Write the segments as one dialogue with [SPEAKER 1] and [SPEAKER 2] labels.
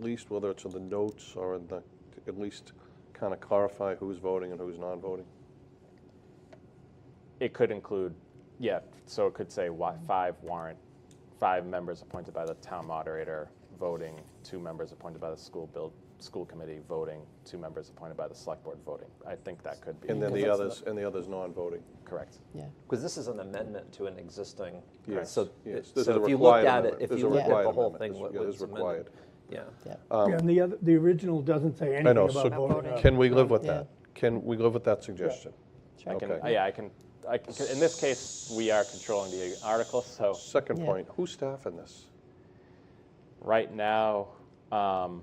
[SPEAKER 1] least, whether it's in the notes or in the, to at least kind of clarify who's voting and who's non-voting?
[SPEAKER 2] It could include, yeah, so it could say wa- five warrant, five members appointed by the town moderator voting, two members appointed by the school build, school committee voting, two members appointed by the select board voting. I think that could be
[SPEAKER 1] And then the
[SPEAKER 3] Because
[SPEAKER 1] others,
[SPEAKER 3] that's
[SPEAKER 1] and the others non-voting.
[SPEAKER 2] correct.
[SPEAKER 3] Yeah.
[SPEAKER 4] Because this is an amendment to an existing,
[SPEAKER 1] Yes,
[SPEAKER 4] so,
[SPEAKER 1] yes. This is a
[SPEAKER 4] so if you
[SPEAKER 1] required
[SPEAKER 4] looked at it,
[SPEAKER 1] amendment.
[SPEAKER 4] if
[SPEAKER 1] This is
[SPEAKER 4] you
[SPEAKER 1] a
[SPEAKER 4] looked at the
[SPEAKER 1] required
[SPEAKER 4] whole
[SPEAKER 1] amendment.
[SPEAKER 4] thing,
[SPEAKER 1] This-
[SPEAKER 4] what
[SPEAKER 1] yeah, this
[SPEAKER 4] was
[SPEAKER 1] is required.
[SPEAKER 4] amended? Yeah.
[SPEAKER 3] Yeah.
[SPEAKER 5] Yeah, and the other, the original doesn't say
[SPEAKER 1] I
[SPEAKER 5] anything
[SPEAKER 1] know,
[SPEAKER 5] about
[SPEAKER 1] so
[SPEAKER 5] voting.
[SPEAKER 1] can we live with
[SPEAKER 3] Yeah.
[SPEAKER 1] that? Can we live with that suggestion?
[SPEAKER 2] I can,
[SPEAKER 1] Okay.
[SPEAKER 2] yeah, I can, I can, in this case, we are controlling the article, so
[SPEAKER 1] Second
[SPEAKER 3] Yeah.
[SPEAKER 1] point, who's staffing this?
[SPEAKER 2] right now, um,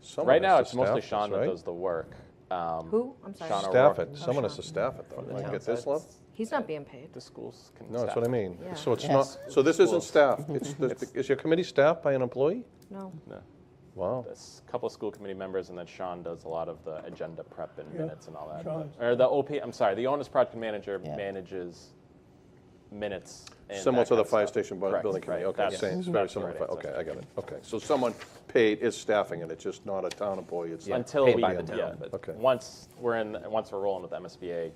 [SPEAKER 1] Someone
[SPEAKER 2] right now
[SPEAKER 1] has
[SPEAKER 2] it's
[SPEAKER 1] to
[SPEAKER 2] mostly
[SPEAKER 1] staff this,
[SPEAKER 2] Sean that
[SPEAKER 1] right?
[SPEAKER 2] does the work. Um,
[SPEAKER 6] Who? I'm sorry.
[SPEAKER 2] Sean
[SPEAKER 1] Staff
[SPEAKER 2] O'Rourke.
[SPEAKER 1] it, someone has to
[SPEAKER 6] Sean.
[SPEAKER 1] staff it though.
[SPEAKER 4] Yeah.
[SPEAKER 1] You Get this level?
[SPEAKER 6] He's not being paid.
[SPEAKER 2] The schools can
[SPEAKER 1] No, that's
[SPEAKER 2] staff.
[SPEAKER 1] what I mean.
[SPEAKER 6] Yeah.
[SPEAKER 1] So it's not,
[SPEAKER 3] Yes.
[SPEAKER 1] so this isn't
[SPEAKER 2] Schools.
[SPEAKER 1] staffed, it's, the- is your committee staffed by an employee?
[SPEAKER 6] No.
[SPEAKER 2] No.
[SPEAKER 1] Wow.
[SPEAKER 2] There's a couple of school committee members, and then Sean does a lot of the agenda prep and
[SPEAKER 5] Yeah,
[SPEAKER 2] minutes and all that.
[SPEAKER 5] Sean is-
[SPEAKER 2] Or the OP, I'm sorry, the onus project manager
[SPEAKER 3] Yeah.
[SPEAKER 2] manages minutes. And
[SPEAKER 1] Similar
[SPEAKER 2] that
[SPEAKER 1] to the
[SPEAKER 2] kind of
[SPEAKER 1] fire
[SPEAKER 2] stuff.
[SPEAKER 1] station bu-
[SPEAKER 2] Correct,
[SPEAKER 1] building committee,
[SPEAKER 2] right,
[SPEAKER 1] okay,
[SPEAKER 2] that's-
[SPEAKER 1] same, it's very
[SPEAKER 2] that's the
[SPEAKER 1] similar,
[SPEAKER 2] right
[SPEAKER 1] to fi-
[SPEAKER 2] answer.
[SPEAKER 1] okay, I got it, okay. So someone paid is staffing it, it's just not a town employee, it's.
[SPEAKER 2] Until
[SPEAKER 4] paid
[SPEAKER 2] we,
[SPEAKER 4] by the town,
[SPEAKER 2] yeah,
[SPEAKER 4] but-
[SPEAKER 1] Okay.
[SPEAKER 2] once we're in, once we're rolling with MSBA,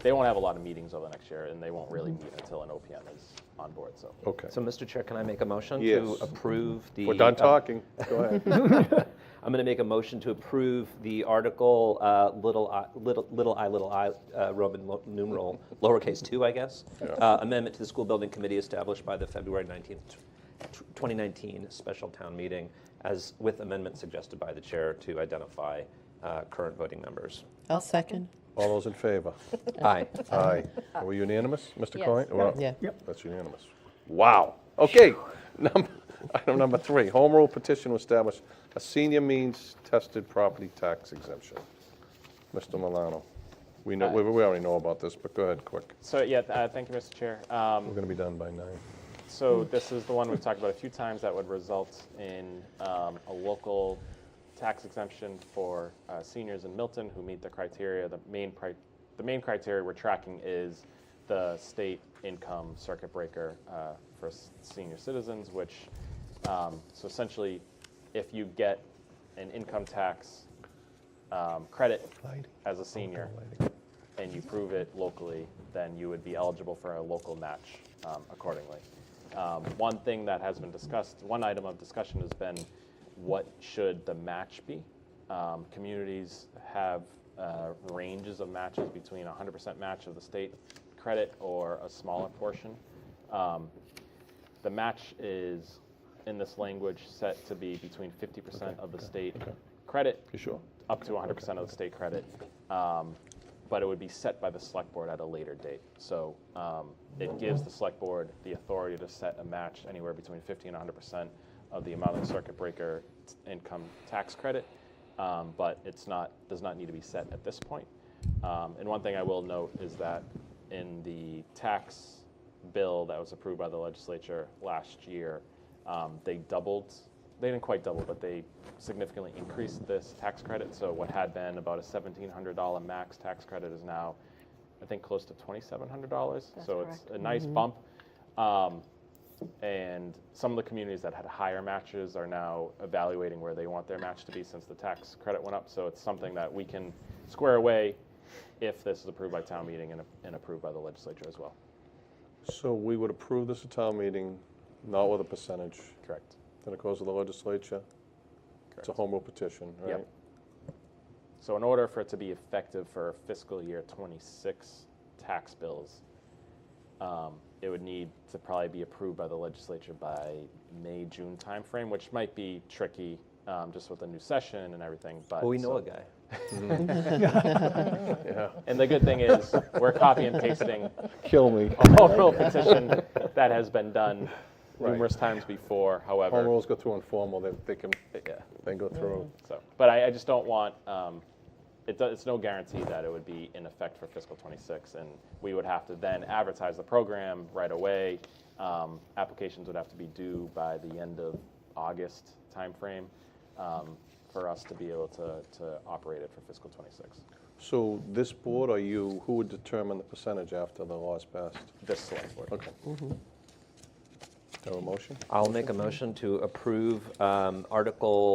[SPEAKER 2] they won't have a lot of meetings over the next year, and they won't really
[SPEAKER 5] Mm-hmm.
[SPEAKER 2] meet until an OPM is on board, so.
[SPEAKER 1] Okay,
[SPEAKER 4] So, Mr. Chair, can I make a motion to
[SPEAKER 1] Yes.
[SPEAKER 4] approve the?
[SPEAKER 1] we're done
[SPEAKER 4] um,
[SPEAKER 1] talking, go ahead.
[SPEAKER 4] I'm going to make a motion to approve the article, uh, little i, little little i, little i, uh, Roman lo- numeral, lowercase two, I guess. Uh, Amendment to the school building committee established by the February 19th, tw- 2019 special town meeting, as with amendment suggested by the chair to identify uh, current voting members.
[SPEAKER 3] I'll second.
[SPEAKER 1] All those in favor?
[SPEAKER 4] Aye.
[SPEAKER 1] Aye. Are we unanimous, Mr.
[SPEAKER 6] Yes.
[SPEAKER 1] Coyne? Well,
[SPEAKER 3] Yeah.
[SPEAKER 5] Yep.
[SPEAKER 1] That's unanimous. Wow, okay, number, item number three, home rule petition to establish a senior means tested property tax exemption. Mr. Milano, we
[SPEAKER 2] Uh,
[SPEAKER 1] know, we we already know about this, but go ahead, quick,
[SPEAKER 2] So, yeah, uh, thank you, Mr. Chair. Um,
[SPEAKER 1] we're gonna be done by nine.
[SPEAKER 2] So this is the one we've talked about a few times that would result in um, a local tax exemption for uh, seniors in Milton who meet the criteria. The main, pri- the main criteria we're tracking is the state income circuit breaker uh, for s- senior citizens, which, um, so essentially, if you get an income tax um, credit as a senior, and you prove it locally, then you would be eligible for a local match um, accordingly. Um, one thing that has been discussed, one item of discussion has been what should the match be? Um, communities have uh, ranges of matches between 100% match of the state credit or a smaller portion. Um, the match is, in this language, set to be between 50% of the state credit
[SPEAKER 1] You sure?
[SPEAKER 2] up to 100% of the state credit, um, but it would be set by the select board at a later date. So um, it gives the select board the authority to set a match anywhere between 50 and 100% of the amount of circuit breaker t- income tax credit, um, but it's not does not need to be set at this point. Um, and one thing I will note is that in the tax bill that was approved by the legislature last year, um, they doubled, they didn't quite double, but they significantly increased this tax credit. So what had been about a $1,700 max tax credit is now, I think, close to $2,700.
[SPEAKER 6] That's
[SPEAKER 2] So it's
[SPEAKER 6] correct.
[SPEAKER 2] a nice bump. Um, and some of the communities that had higher matches are now evaluating where they want their match to be since the tax credit went up. So it's something that we can square away if this is approved by town meeting and, and approved by the legislature as well.
[SPEAKER 1] So we would approve this at town meeting, not with a percentage,
[SPEAKER 2] Correct.
[SPEAKER 1] then it goes to the legislature. It's a home rule petition, right?
[SPEAKER 2] Yep. So in order for it to be effective for fiscal year '26 tax bills, um, it would need to probably be approved by the legislature by May, June timeframe, which might be tricky, um, just with the new session and everything, but.
[SPEAKER 4] Well, we know
[SPEAKER 2] so-
[SPEAKER 4] a guy.
[SPEAKER 1] Yeah.
[SPEAKER 2] And the good thing is, we're copy and pasting
[SPEAKER 1] Kill me.
[SPEAKER 2] a oral petition that has been done
[SPEAKER 1] Right.
[SPEAKER 2] numerous times before, however.
[SPEAKER 1] Home rules go through informal, they, they can,
[SPEAKER 2] Yeah.
[SPEAKER 1] they go through.
[SPEAKER 2] So, but I, I just don't want, um, it, do- it's no guarantee that it would be in effect for fiscal '26, and we would have to then advertise the program right away. Um, applications would have to be due by the end of August timeframe um, for us to be able to, to operate it for fiscal '26.
[SPEAKER 1] So this board or you, who would determine the percentage after the law is passed?
[SPEAKER 2] This select board.
[SPEAKER 1] Okay. Have a motion?
[SPEAKER 4] I'll make a motion to approve um, Article